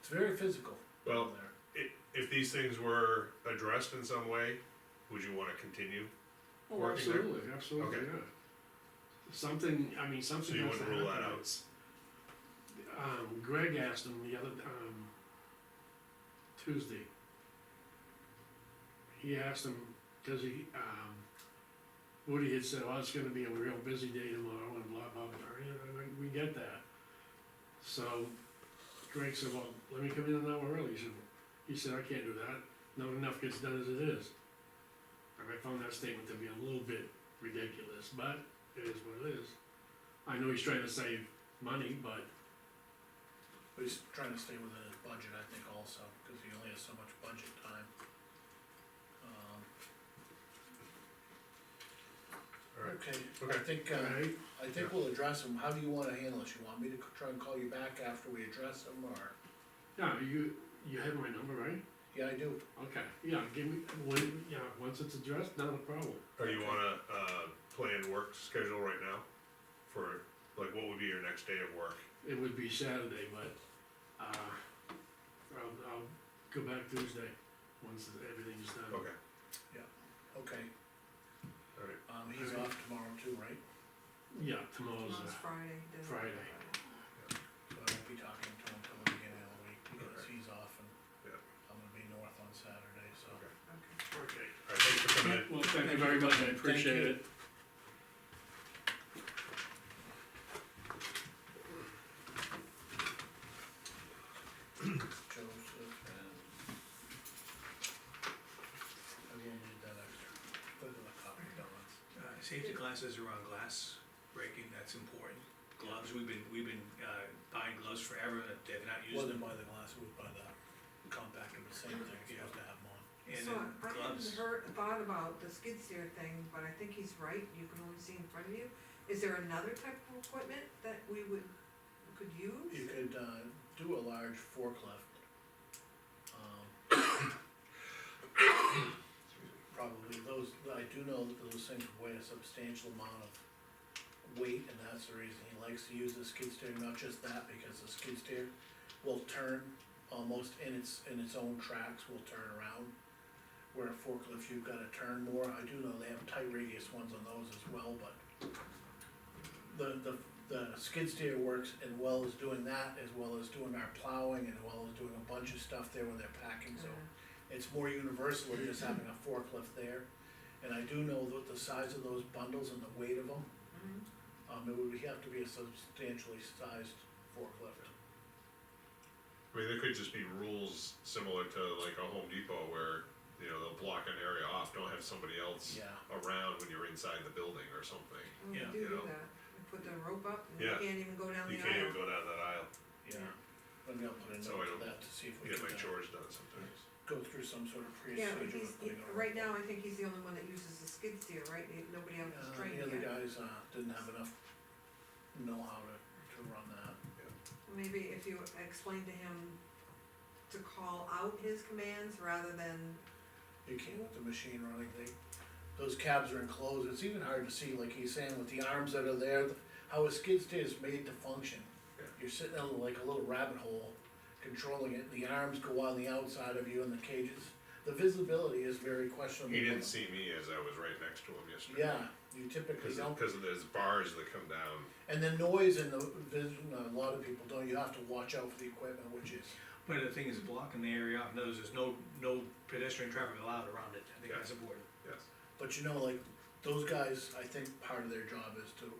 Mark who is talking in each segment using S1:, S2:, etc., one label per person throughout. S1: It's very physical.
S2: Well,
S1: down there.
S2: i- if these things were addressed in some way, would you wanna continue?
S3: Oh,
S2: working there?
S3: absolutely, absolutely,
S2: Okay.
S3: yeah. Something, I mean,
S2: So
S3: something
S2: you
S3: has to
S2: wouldn't rule that
S3: happen.
S2: out?
S3: Um, Greg asked him the other, um, Tuesday. He asked him, cause he, um, Woody had said, oh, it's gonna be a real busy day tomorrow and blah, blah, blah, you know, we, we get that. So Greg said, well, let me come in an hour early, he said, he said, I can't do that, not enough gets done as it is. And I found that statement to be a little bit ridiculous, but it is what it is. I know he's trying to save money, but
S1: But he's trying to stay within his budget, I think also, cause he only has so much budget time. Um,
S2: Alright,
S1: Okay, I
S2: okay,
S1: think,
S3: All
S1: uh,
S3: right,
S1: I think we'll address them, how do you wanna handle this, you want me to c- try and call you back after we address them, or?
S3: now, you, you have my number, right?
S1: Yeah, I do,
S3: Okay, yeah, give me, when, yeah, once it's addressed, not a problem.
S2: or you wanna, uh, plan work schedule right now? For, like, what would be your next day of work?
S3: It would be Saturday, but, uh, I'll, I'll go back Tuesday, once everything's done.
S2: Okay,
S1: okay,
S2: alright,
S1: um, he's off tomorrow too, right?
S3: Yeah, tomorrow's,
S4: Tomorrow's
S3: uh,
S4: Friday. doesn't it?
S3: Friday.
S1: So I won't be talking to him till the beginning of the week, because
S2: Okay.
S1: he's off and
S2: Yeah.
S1: I'm gonna be north on Saturday, so.
S2: Okay.
S4: Okay.
S3: okay.
S2: alright, thanks for coming in.
S3: Well, thank you very much, I appreciate it.
S1: you. Joseph and. I will need that extra, put it in the copy, don't I?
S5: Uh, Safety glasses are on glass breaking, that's important. Gloves, we've been, we've been, uh, buying gloves forever, and they've not used
S1: Wasn't
S5: them.
S1: by the glass, it was by the compact, it was the same thing, you have to have them on.
S5: And
S4: So I
S5: then
S4: hadn't
S5: gloves,
S4: heard, thought about the skid steer thing, but I think he's right, you can only see in front of you. Is there another type of equipment that we would, could
S1: You
S4: use?
S1: could, uh, do a large forklift. Um, Probably those, I do know that those things weigh a substantial amount of weight, and that's the reason he likes to use the skid steer, not just that, because the skid steer will turn almost in its, in its own tracks, will turn around. Where a forklift, you've gotta turn more, I do know they have tight radius ones on those as well, but the, the, the skid steer works as well as doing that, as well as doing our plowing, as well as doing a bunch of stuff there when they're packing, so
S4: Uh,
S1: it's more universal than just having a forklift there. And I do know that the size of those bundles and the weight of them,
S4: mhm.
S1: um, it would have to be a substantially sized forklift.
S2: I mean, there could just be rules similar to like a Home Depot where, you know, they'll block an area off, don't have somebody else
S1: Yeah,
S2: around when you're inside the building or something.
S4: Well, we
S5: Yeah,
S4: do
S2: you
S4: do
S2: know.
S4: that, we put the rope up and you
S2: Yeah.
S4: can't even go down
S2: You
S4: the
S2: can't even
S4: aisle.
S2: go down that aisle,
S1: yeah. Let me put a
S2: So I
S1: note
S2: don't
S1: to that to see if we
S2: get my
S1: can uh,
S2: chores done sometimes.
S1: go through some sort of procedure.
S4: Yeah, but he's,
S1: of putting
S4: he-
S1: on a
S4: right now,
S1: rope.
S4: I think he's the only one that uses the skid steer, right? Nobody else is
S1: Uh,
S4: trained
S1: the other
S4: yet.
S1: guys, uh, didn't have enough know-how to, to run that.
S4: Maybe if you explain to him to call out his commands rather than
S1: You can't with the machine running, they, those cabs are enclosed, it's even hard to see, like he's saying, with the arms that are there, how a skid steer is made to function.
S2: Yeah.
S1: You're sitting in like a little rabbit hole, controlling it, the arms go on the outside of you and the cages, the visibility is very questionable.
S2: He didn't see me as I was right next to him yesterday.
S1: uh, Yeah, you typically
S2: Cause,
S1: don't,
S2: cause there's bars that come down,
S1: and the noise and the vision, a lot of people don't, you have to watch out for the equipment, which is,
S5: but the thing is blocking the area off, in other words, there's no, no pedestrian traffic allowed around it, I think
S2: Yeah.
S5: that's important.
S2: yes.
S1: But you know, like, those guys, I think part of their job is to,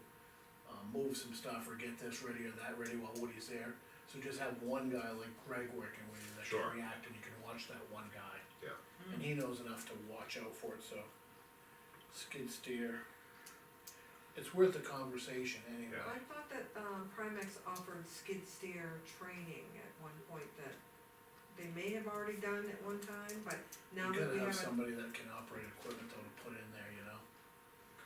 S1: um, move some stuff or get this ready or that ready while Woody's there. So just have one guy like Greg working with you that
S2: Sure.
S1: can react and you can watch that one guy. Yeah. And he knows enough to watch out for it, so. Skid steer. It's worth the conversation anyway.
S4: I thought that, um, Primex offered skid steer training at one point that they may have already done at one time, but now
S1: You
S4: that we
S1: gotta have
S4: have a,
S1: somebody that can operate equipment though to put in there, you know?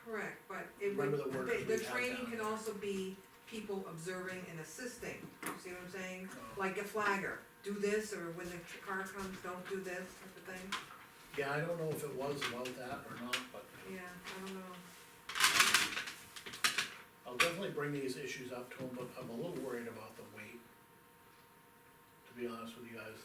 S4: correct, but it would,
S1: Remember the workers
S4: the, the
S1: we had
S4: training
S1: down
S4: can
S1: there.
S4: also be people observing and assisting, you see what I'm saying?
S1: Uh,
S4: Like a flagger, do this, or when the tr- car comes, don't do this, type of thing,
S1: Yeah, I don't know if it was about that or not, but
S4: yeah, I don't know.
S1: I'll definitely bring these issues up to him, but I'm a little worried about the weight. To be be honest with you guys,